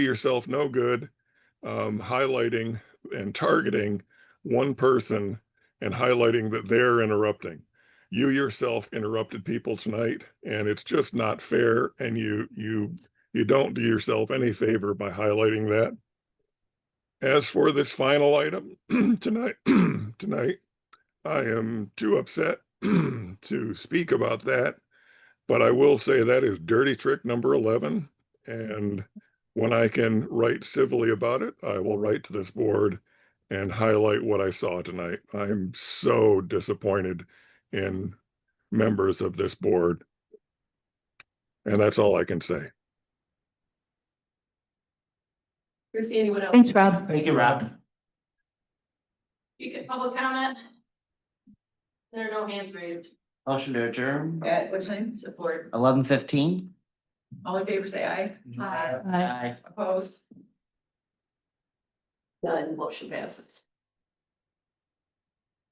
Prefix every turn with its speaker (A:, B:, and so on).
A: yourself no good um, highlighting and targeting one person and highlighting that they're interrupting. You yourself interrupted people tonight, and it's just not fair. And you you you don't do yourself any favor by highlighting that. As for this final item tonight, tonight, I am too upset to speak about that. But I will say that is dirty trick number eleven, and when I can write civilly about it, I will write to this board and highlight what I saw tonight. I'm so disappointed in members of this board. And that's all I can say.
B: Christie, anyone else?
C: Thanks, Rob.
D: Thank you, Rob.
B: You get public comment? There are no hands raised.
D: Motion to adjourn,
E: At what time? Support.
D: eleven fifteen.
E: All in favor, say aye.
C: Aye.
E: Oppose? None, motion passes.